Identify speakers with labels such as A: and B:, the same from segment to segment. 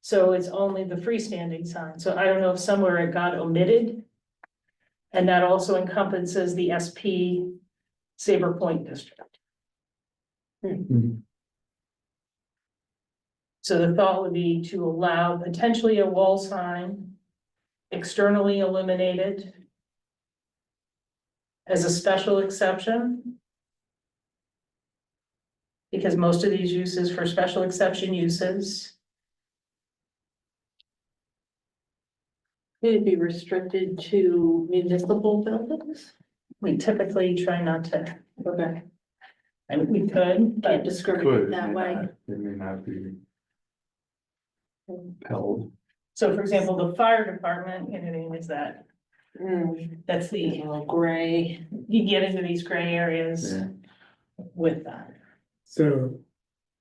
A: So it's only the freestanding sign, so I don't know if somewhere it got omitted. And that also encompasses the SP Saber Point District. So the thought would be to allow potentially a wall sign externally illuminated as a special exception. Because most of these uses for special exception uses,
B: Would it be restricted to municipal buildings?
A: we typically try not to,
B: Okay.
A: I mean, we could,
B: Can't
A: but
B: discriminate
C: Could, it
B: that
C: may
B: way.
C: not- it may not be held.
A: so for example, the fire department, you know, they use that,
B: Mm,
A: that's
B: it's
A: the,
B: a little gray.
A: you get into these gray areas
C: Yeah.
A: with that.
D: So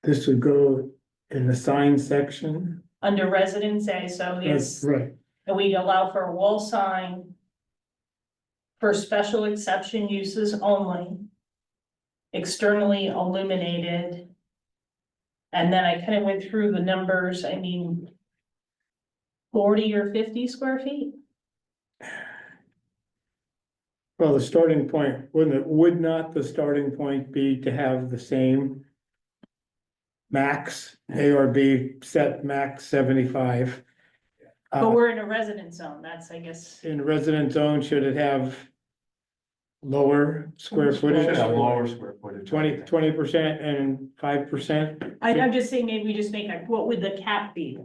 D: this would go in the sign section?
A: Under residence A, so yes.
D: Right,
A: And we allow for a wall sign for special exception uses only, externally illuminated. And then I kind of went through the numbers, I mean, forty or fifty square feet?
D: well, the starting point, wouldn't it, would not the starting point be to have the same max, A or B, set max seventy-five?
A: But
D: Uh,
A: we're in a residence zone, that's, I guess,
D: in resident zone, should it have lower square footage?
C: Should have lower square footage.
D: Twenty, twenty percent and five percent?
A: I, I'm just saying, maybe we just make a, what would the cap be?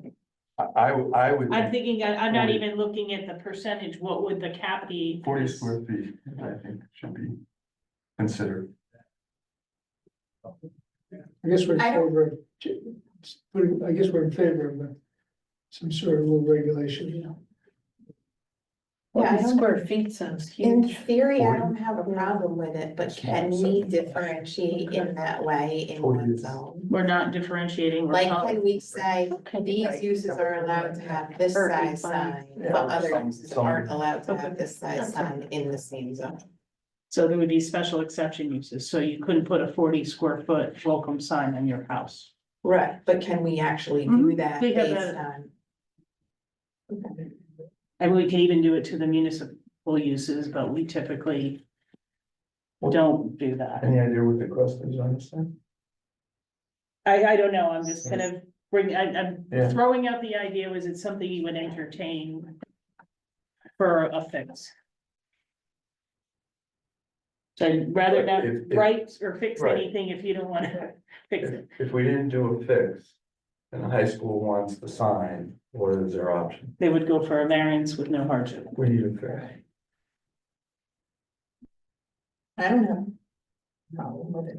C: I, I would- I would.
A: I'm thinking, I- I'm not
C: Forty.
A: even looking at the percentage, what would the cap be?
C: Forty square feet, I think, should be considered.
E: I guess we're in
F: I don't-
E: favor, of ch- we're- I guess we're in favor of uh, some sort of rule regulation.
F: Yeah, I don't-
B: Square feet sounds
F: In
B: huge.
F: theory, I don't have a problem with it, but can we differentiate in that way in one zone?
A: We're not differentiating. we're
F: Like,
A: not-
F: can we say these uses are allowed to have this size sign, but other uses aren't allowed to have this size sign in the same zone?
A: So there would be special exception uses, so you couldn't put a forty square foot welcome sign on your house.
F: Right. Mm-hmm. But can we actually do that
A: We have
F: based
A: that.
F: on?
A: And we could even do it to the municipal uses, but we typically don't do that.
C: Any idea what the cost is on this thing?
A: I, I don't know, I'm just kind of bringing, I'm,
C: Yeah.
A: I'm throwing out the idea, was it something you would entertain for a fix? So I'd rather not
C: If- if-
A: write or fix
C: Right.
A: anything if you don't wanna fix
C: If,
A: it.
C: if we didn't do a fix, and the high school wants the sign, what is their option?
A: They would go for a variance with no hardship.
C: We need a fix.
F: I don't know. Problem with it.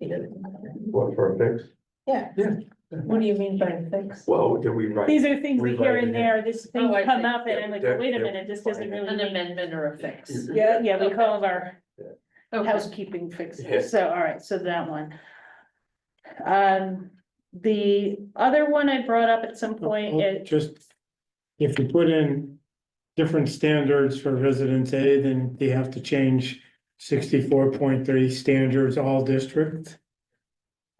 F: It doesn't matter.
C: What, for a fix?
F: Yeah.
C: Yeah.
B: What do you mean by fix?
C: Well, did we write?
A: These are things we hear in there, this thing
B: Oh, I
A: come
B: see.
A: up and I'm like,
C: They're-
A: wait a
C: they're
A: minute, this doesn't
C: fine.
A: really
B: An
A: make.
B: amendment or a fix.
A: Yeah, yeah, we call them our
B: Okay.
A: Oh, housekeeping
C: Yeah.
A: fixes, so, all right, so that one. Um, the other one I brought up at
D: Oh,
A: some point, it,
D: Just, if you put in different standards for residence A, then you have to change sixty-four point three standards all district.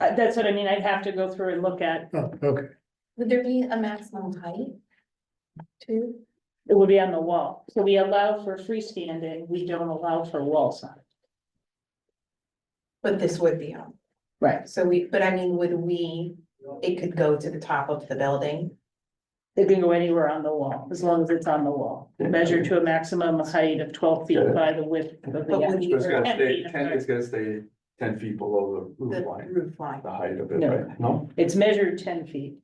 A: uh, that's what I mean, I'd have to go through and look at,
D: Oh, okay,
F: Would there be a maximum height? Two?
A: it would be on the wall. So we allow for freestanding, we don't allow for wall sign.
F: But this would be on.
A: Right.
F: So we, but I mean, would we, it could go to the top of the building,
A: It can go anywhere on the wall, as long as it's on the wall, measured to a maximum height of twelve feet by the width of
F: but
A: the.
F: would you?
C: It's gonna
A: Ten
C: stay,
A: feet, I'm
C: ten,
A: sorry.
C: it's gonna stay ten feet below the
F: The
C: roof line,
F: roof line.
C: the height of it,
A: No.
C: right? No?
A: It's measured ten feet.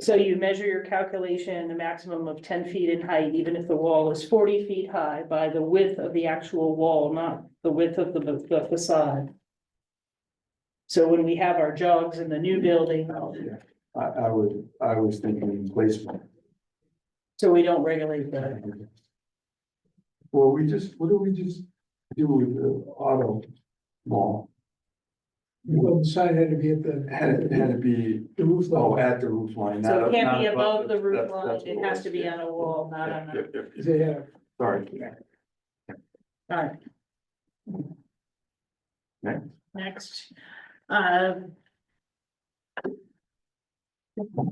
A: So you measure your calculation, a maximum of ten feet in height, even if the wall is forty feet high by the width of the actual wall, not the width of the the facade. So when we have our jogs in the new building,
C: I, I would, I was thinking placement.
A: so we don't regulate that.
C: Well, we just, what do we just do with the auto mall?
E: You wouldn't sign had to be at the.
C: Had it, had it be,
E: The roof
C: oh,
E: level,
C: at the roof line.
A: So
C: not-
A: it can't
C: not
A: be above the roof
C: that's-
A: line,
C: that's
A: it
C: what
A: has
C: was,
A: to be
C: yeah.
A: on a wall, not
C: Yeah,
A: on
C: yeah,
A: a,
C: yeah, yeah.
E: they have,
C: Sorry.
A: alright.
C: Next.
A: Uh, Next, um.